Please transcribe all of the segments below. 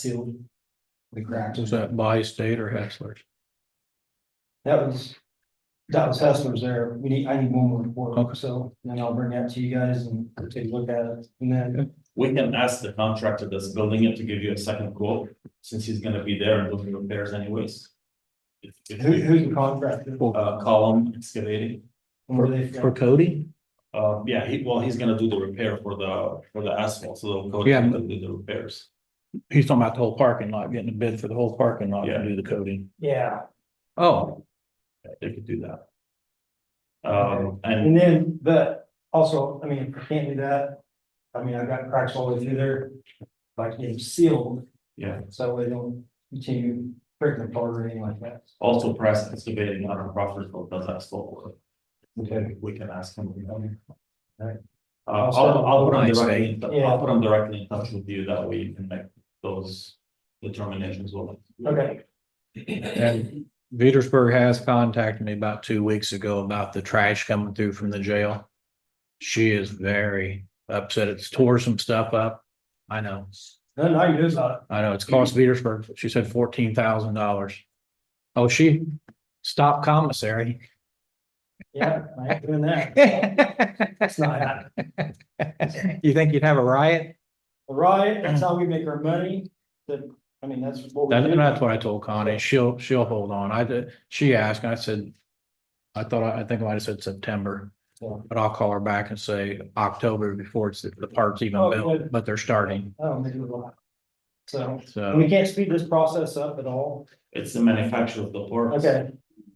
sealed. The crack. Was that by state or Hessler's? That was, that was Hessler's there. We need, I need one more report, Okay. so then I'll bring that to you guys and take a look at it. And then, We can ask the contractor that's building it to give you a second quote, since he's gonna be there and doing repairs anyways. If, if who, we, who's the contractor? uh, call him excavating, And where they from? For Cody? uh, yeah, he, well, he's gonna do the repair for the, for the asphalt, so they'll go Yeah. and do the repairs. He's talking about the whole parking lot, getting a bid for the whole parking lot Yeah. to do the coating. Yeah, Oh, Yeah, They could do that. Um, and and then, but also, I mean, if I can't do that, I mean, I've got cracks all the way through there. Like getting sealed, yeah, so they don't continue breaking apart or anything like that. also press excavating on a profitable does asphalt work. Okay. We can ask him. you know. Right. Uh, I'll, I'll put him Nice, directly, in tou- Yeah. I'll put him directly in touch with you, that way you can make those determinations with him. Okay. and Petersburg has contacted me about two weeks ago about the trash coming through from the jail. She is very upset. It's tore some stuff up. I know, Then I can do that. I know. It's cost Petersburg. She said fourteen thousand dollars. Oh, she stopped commissary. Yeah, I ain't doing that. That's not You think you'd have a riot? Right, that's how we make our money, that, I mean, that's what we That- do. that's what I told Connie. She'll, she'll hold on. I, did- she asked, and I said, I thought, I think I might have said September, Yeah. but I'll call her back and say October before it's, the part's even Oh, built, good. but they're starting. I don't think we lie. So, and So we can't speed this process up at all, It's the manufacture of the parts. okay,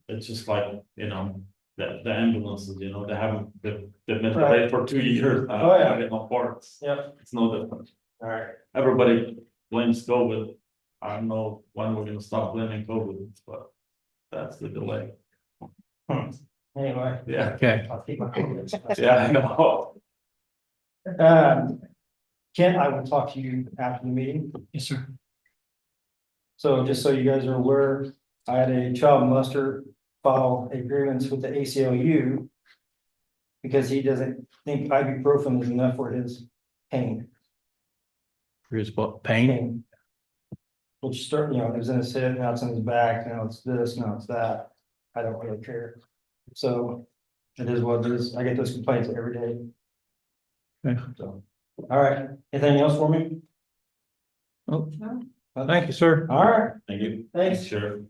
It's just like, you know, the, the ambulances, you know, they haven't, they've, they've been Right. delayed for two years. uh, Oh, yeah. Getting on parts, yep, it's no different. alright, Everybody blames COVID. I don't know when we're gonna stop blaming COVID, but that's the delay. Hmm. anyway. Yeah, Okay, I'll keep my comments. yeah, I know. Um, Kent, I will talk to you after the meeting. Yes, sir. So just so you guys are aware, I had a child muster file a grievance with the ACLU. Because he doesn't think ibuprofen is enough for his pain. here's what, pain? pain. Which start, you know, it was in his hip, now it's in his back, now it's this, now it's that. I don't really care. So it is what it is. I get those complaints every day. Okay. So, all right, anything else for me? Oh, Thank you, sir. All right, Thank you. thanks. Sure.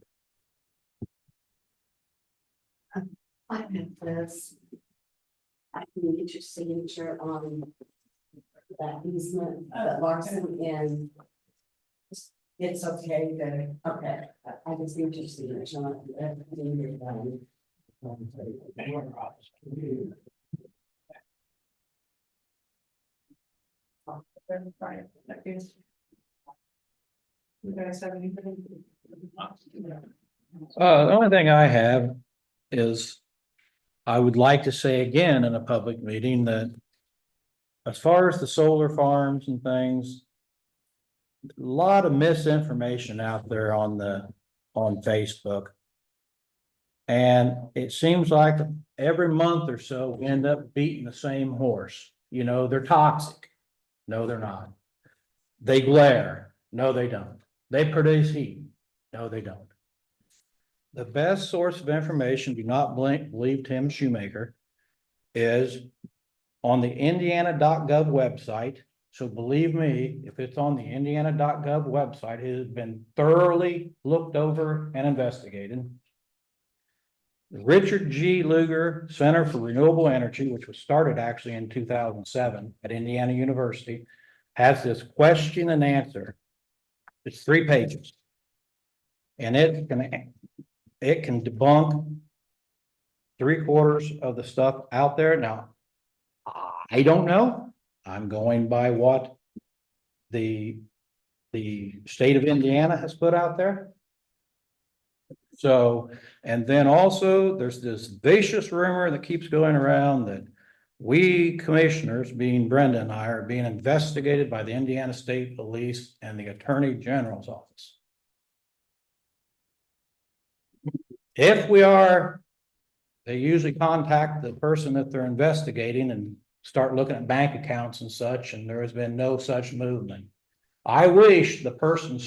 I have this. I can get your signature on. That easement, that Larson in. It's okay, then, okay, I- I just need your signature on it. I need your one. You guys have anything? Uh, the only thing I have is I would like to say again in a public meeting that as far as the solar farms and things, a lot of misinformation out there on the, on Facebook. And it seems like every month or so, we end up beating the same horse. You know, they're toxic. No, they're not. They glare. No, they don't. They produce heat. No, they don't. The best source of information, do not blink, believe Tim Shoemaker, is on the indiana.gov website. So believe me, if it's on the indiana.gov website, it has been thoroughly looked over and investigated. The Richard G. Luger Center for Renewable Energy, which was started actually in two thousand seven at Indiana University, has this question and answer. It's three pages. And it can it can debunk three quarters of the stuff out there now. I don't know. I'm going by what the, the state of Indiana has put out there. So, and then also there's this vicious rumor that keeps going around that we commissioners, being Brenda and I, are being investigated by the Indiana State Police and the Attorney General's Office. If we are, they usually contact the person that they're investigating and start looking at bank accounts and such, and there has been no such movement. I wish the person